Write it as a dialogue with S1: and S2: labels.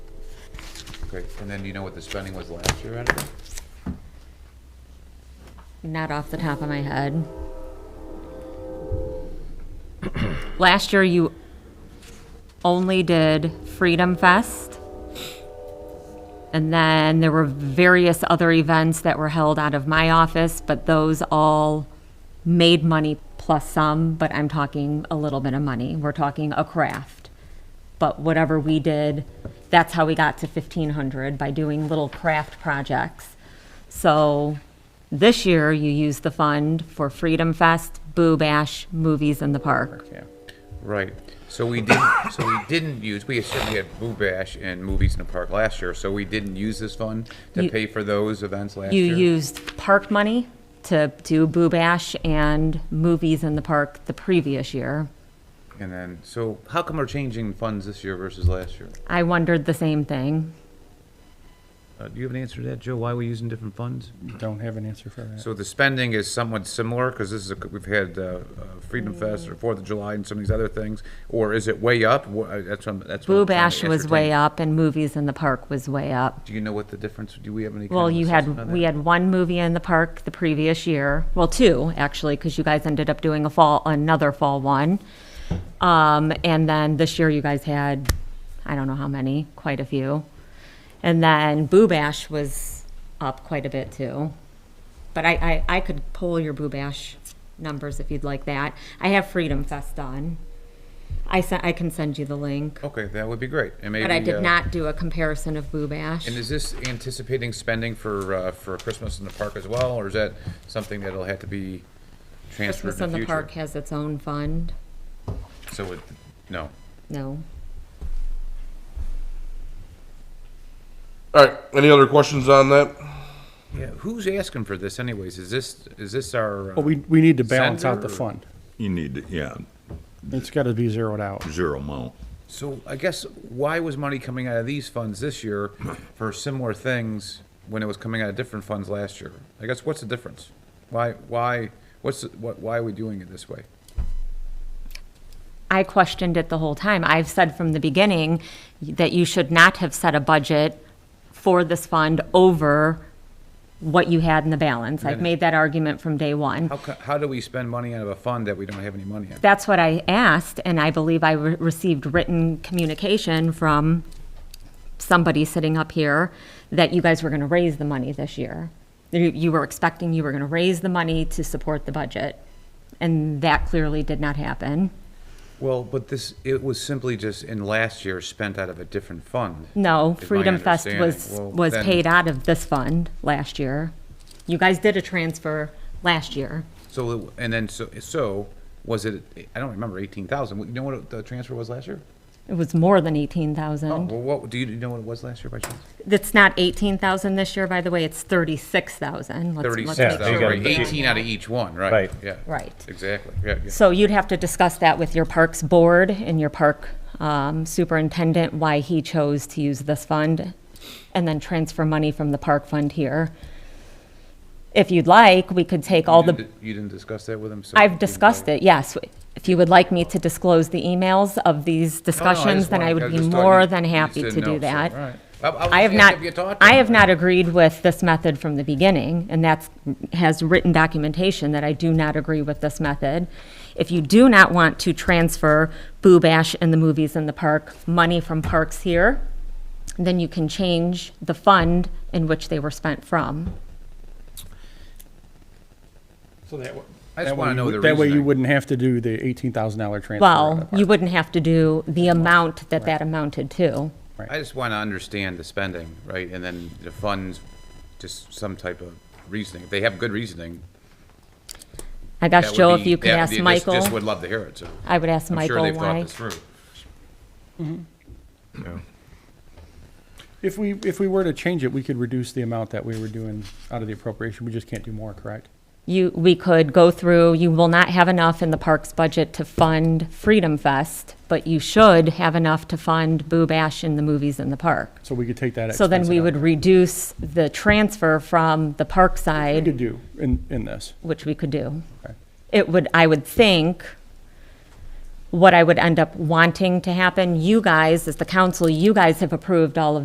S1: Great, and then do you know what the spending was last year out of it?
S2: Not off the top of my head. Last year, you only did Freedom Fest. And then there were various other events that were held out of my office, but those all made money plus some, but I'm talking a little bit of money. We're talking a craft. But whatever we did, that's how we got to 1,500 by doing little craft projects. So this year, you used the fund for Freedom Fest, Boo Bash, Movies in the Park.
S1: Yeah, right. So we did, so we didn't use, we certainly had Boo Bash and Movies in the Park last year, so we didn't use this fund to
S2: You-
S1: pay for those events last
S2: You
S1: year?
S2: used park money to do Boo Bash and Movies in the Park the previous year.
S1: And then, so how come we're changing funds this year versus last year?
S2: I wondered the same thing.
S1: Uh, do you have an answer to that, Joe? Why are we using different funds?
S3: Don't have an answer for that.
S1: So the spending is somewhat similar, because this is, a- we've had uh, uh, Freedom Fest or Fourth of July and some of these other things, or is it way up? Wha- uh, That's what, I'm- that's what.
S2: Boo Bash was way up and Movies in the Park was way up.
S1: Do you know what the difference, do we have any? kind
S2: Well,
S1: of
S2: you
S1: assessment on
S2: had,
S1: that?
S2: we had one movie in the park the previous year, well, two, actually, because you guys ended up doing a fall, another fall one. Um, and then this year you guys had, I don't know how many, quite a few. And then Boo Bash was up quite a bit too. But I, I, I could pull your Boo Bash numbers if you'd like that. I have Freedom Fest on. I sent, I can send you the link,
S1: Okay, that would be great. And
S2: but I
S1: maybe, uh,
S2: did not do a comparison of Boo Bash.
S1: And is this anticipating spending for, uh, for Christmas in the park as well, or is that something that'll have to be transferred
S2: Christmas
S1: in
S2: in
S1: the
S2: the
S1: future?
S2: Park has its own fund.
S1: So it, no.
S2: No.
S4: All right, any other questions on that?
S1: Yeah, who's asking for this anyways? Is this, is this our? uh,
S3: Well, we, we need to balance out the
S1: Center or-
S3: fund.
S5: You need, to yeah,
S3: It's gotta be zeroed out.
S5: zero amount.
S1: So I guess why was money coming out of these funds this year for similar things when it was coming out of different funds last year? I guess what's the difference? Why, why, what's, the- what, why are we doing it this way?
S2: I questioned it the whole time. I've said from the beginning that you should not have set a budget for this fund over what you had in the balance. I've made that argument from day one.
S1: How, co- how do we spend money out of a fund that we don't have any money in?
S2: That's what I asked, and I believe I re- received written communication from somebody sitting up here that you guys were going to raise the money this year. You, you were expecting you were going to raise the money to support the budget, and that clearly did not happen.
S1: Well, but this, it was simply just in last year spent out of a different fund.
S2: No,
S1: is my
S2: Freedom Fest was,
S1: understanding. Well,
S2: was
S1: then-
S2: paid out of this fund last year. You guys did a transfer last year.
S1: So, it- and then, so, so, was it, I don't remember, eighteen thousand, you know what the transfer was last year?
S2: It was more than eighteen
S1: Oh,
S2: thousand.
S1: well, what, do you know what it was last year by chance?
S2: It's not eighteen thousand this year, by the way, it's thirty-six thousand.
S1: Thirty-six
S6: Yeah, you
S1: thousand,
S6: gotta
S1: right,
S6: be-
S1: eighteen out of each one, right?
S6: Right.
S1: Yeah.
S2: Right.
S1: Exactly, yeah, yeah.
S2: So you'd have to discuss that with your parks board and your park um, superintendent, why he chose to use this fund, and then transfer money from the park fund here. If you'd like, we could take all
S1: You
S2: the.
S1: didn't- You didn't discuss that with him? so
S2: I've discussed it, yes. If you would like me to disclose the emails of
S1: No,
S2: these
S1: no, Oh, I just
S2: discussions, then
S1: wanted-
S2: I would be
S1: just thought
S2: more
S1: you-
S2: than
S1: you
S2: happy
S1: said
S2: to
S1: no,
S2: do
S1: so, all
S2: that.
S1: right. I- I was
S2: I have
S1: asking
S2: not,
S1: if you talked to
S2: I
S1: him
S2: have
S1: about
S2: not
S1: it.
S2: agreed with this method from the beginning, and that's, has written documentation that I do not agree with this method. If you do not want to transfer Boo Bash and the Movies in the Park money from parks here, then you can change the fund in which they were spent from.
S3: So that,
S1: I just wanna know the
S3: That way you
S1: reasoning.
S3: wouldn't have to do the eighteen thousand dollar transfer. out of
S2: Well,
S3: the
S2: you
S3: park.
S2: wouldn't have to do the amount that that amounted to.
S1: I just want to understand the spending, right, and then the funds, just some type of reasoning. If they have good reasoning,
S2: I
S1: that
S2: guess,
S1: would
S2: Joe, if
S1: be-
S2: you could
S1: that-
S2: ask
S1: just- Just would
S2: Michael,
S1: love to hear it, so.
S2: I would ask
S1: I'm sure
S2: Michael
S1: they've thought
S2: why.
S1: this through.
S3: If we, if we were to change it, we could reduce the amount that we were doing out of the appropriation. We just can't do more, correct?
S2: You, we could go through, you will not have enough in the parks budget to fund Freedom Fest, but you should have enough to fund Boo Bash and the movies in the park.
S3: So we could take that.
S2: So then
S3: expense
S2: we
S3: out.
S2: would reduce the transfer from the park
S3: We
S2: side,
S3: could do in, in this.
S2: which we could do.
S3: Okay.
S2: It would, I would think, what I would end up wanting to happen, you guys, as the council, you guys have approved all of